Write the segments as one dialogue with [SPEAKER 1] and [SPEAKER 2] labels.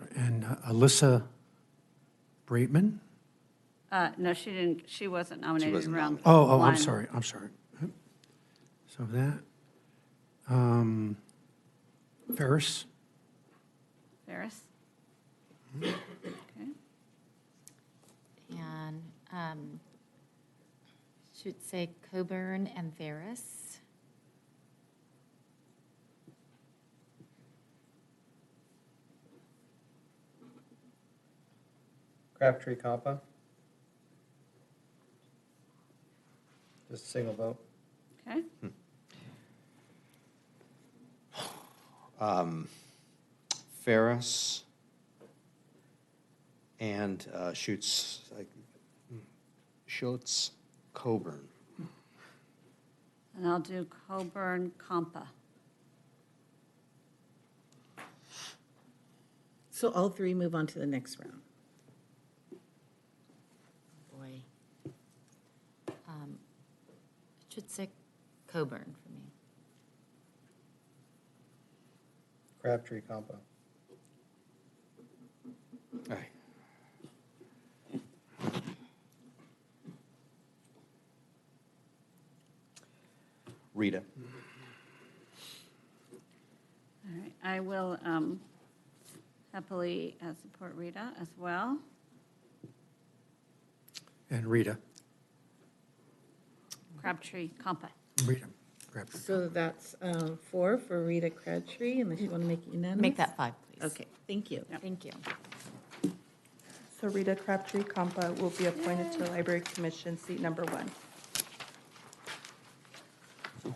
[SPEAKER 1] uh, Alyssa Braitman?
[SPEAKER 2] Uh, No, she didn't, she wasn't nominated in
[SPEAKER 3] wasn't
[SPEAKER 2] round one.
[SPEAKER 1] Oh, oh, I'm sorry, I'm sorry. So that, um, Ferris,
[SPEAKER 2] Ferris? Okay.
[SPEAKER 4] And um, should say Coburn and Varus.
[SPEAKER 5] Crabtree Compa. Just a single vote.
[SPEAKER 2] Okay,
[SPEAKER 3] Um, Ferris and uh, Schutz, like, Schultz, Coburn.
[SPEAKER 2] and I'll do Coburn Compa.
[SPEAKER 6] So all three move on to the next round.
[SPEAKER 4] Boy. Um, Should say Coburn for me.
[SPEAKER 5] Crabtree Compa.
[SPEAKER 3] All right. Rita.
[SPEAKER 2] All right, I will um, happily uh, support Rita as well.
[SPEAKER 1] and Rita,
[SPEAKER 2] Crabtree Compa.
[SPEAKER 1] Rita Crabtree.
[SPEAKER 6] So that's um, four for Rita Crabtree, unless you want to make it unanimous?
[SPEAKER 4] Make that five, please.
[SPEAKER 6] Okay, thank you.
[SPEAKER 4] Thank you.
[SPEAKER 7] So Rita Crabtree Compa will be appointed to the Library Commission, seat number one.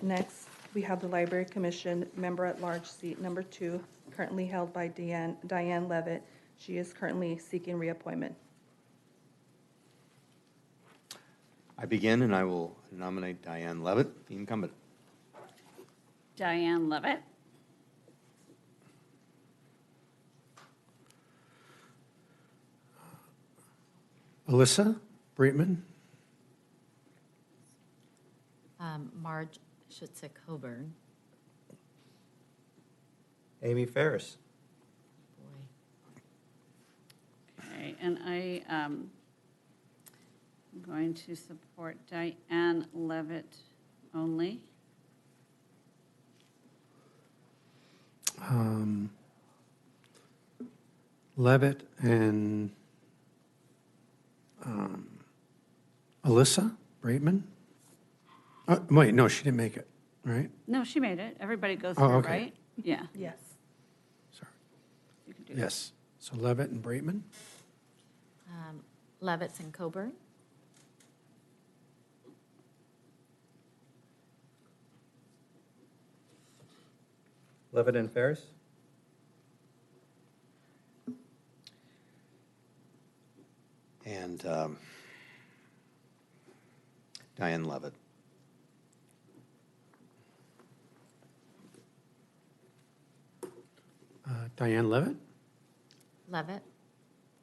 [SPEAKER 7] Next, we have the Library Commission Member-at-Large, seat number two, currently held by Deanne- Diane Levitt. She is currently seeking reappointment.
[SPEAKER 3] I begin, and I will nominate Diane Levitt, the incumbent.
[SPEAKER 2] Diane Levitt.
[SPEAKER 1] Alyssa Braitman,
[SPEAKER 4] Um, Marge should say Coburn.
[SPEAKER 5] Amy Ferris.
[SPEAKER 4] Boy.
[SPEAKER 2] Okay, and I um, am going to support Diane Levitt only.
[SPEAKER 1] um, Levitt and, um, Alyssa Braitman? Uh, wait, no, she didn't make it, right?
[SPEAKER 2] No, she made it. Everybody goes
[SPEAKER 1] Oh,
[SPEAKER 2] through,
[SPEAKER 1] okay.
[SPEAKER 2] right? Yeah,
[SPEAKER 7] Yes.
[SPEAKER 1] Sorry,
[SPEAKER 2] you can do that.
[SPEAKER 1] yes. So Levitt and Braitman?
[SPEAKER 4] Um, Levitz and Coburn.
[SPEAKER 5] Levitt and Ferris.
[SPEAKER 3] And um, Diane Levitt.
[SPEAKER 1] Uh, Diane Levitt?
[SPEAKER 4] Levitt.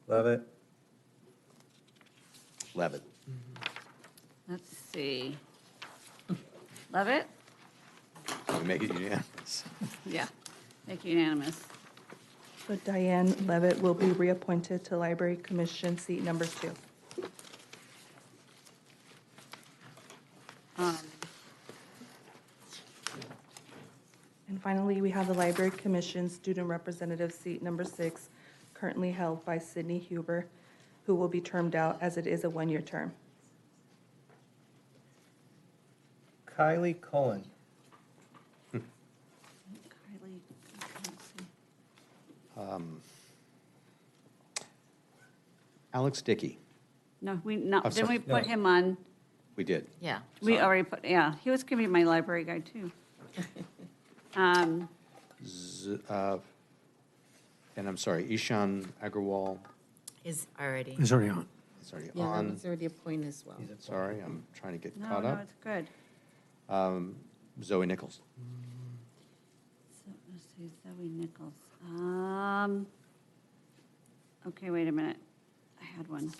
[SPEAKER 5] Levitt.
[SPEAKER 3] Levitt.
[SPEAKER 2] Let's see. Levitt?
[SPEAKER 3] We Make it unanimous.
[SPEAKER 2] Yeah, make it unanimous.
[SPEAKER 7] So Diane Levitt will be reappointed to Library Commission, seat number two.
[SPEAKER 2] Um,
[SPEAKER 7] And finally, we have the Library Commission Student Representative, seat number six, currently held by Sydney Huber, who will be termed out as it is a one-year term.
[SPEAKER 5] Kylie Cullen.
[SPEAKER 2] Kylie, let's see.
[SPEAKER 3] Alex Dickey.
[SPEAKER 2] No, we, no,
[SPEAKER 3] I'm
[SPEAKER 2] didn't
[SPEAKER 3] sorry,
[SPEAKER 2] we put
[SPEAKER 5] no.
[SPEAKER 2] him on?
[SPEAKER 3] We did.
[SPEAKER 4] Yeah.
[SPEAKER 2] We
[SPEAKER 3] Sorry.
[SPEAKER 2] already put, yeah, he was gonna be my library guy, too. Um,
[SPEAKER 3] Z- uh, And I'm sorry, Ishan Agarwal
[SPEAKER 4] Is already.
[SPEAKER 1] Is already on.
[SPEAKER 3] is already
[SPEAKER 6] Yeah, that
[SPEAKER 3] on.
[SPEAKER 6] was already a point as well.
[SPEAKER 5] He's a-
[SPEAKER 3] Sorry, I'm trying to get
[SPEAKER 2] No,
[SPEAKER 3] caught
[SPEAKER 2] no,
[SPEAKER 3] up. Um,
[SPEAKER 2] it's good.
[SPEAKER 3] Zoe Nichols.
[SPEAKER 2] So, let's see, Zoe Nichols. Um, okay, wait a minute. I had one.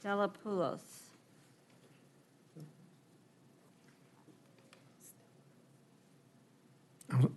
[SPEAKER 2] Stella Poulos.
[SPEAKER 1] I'm-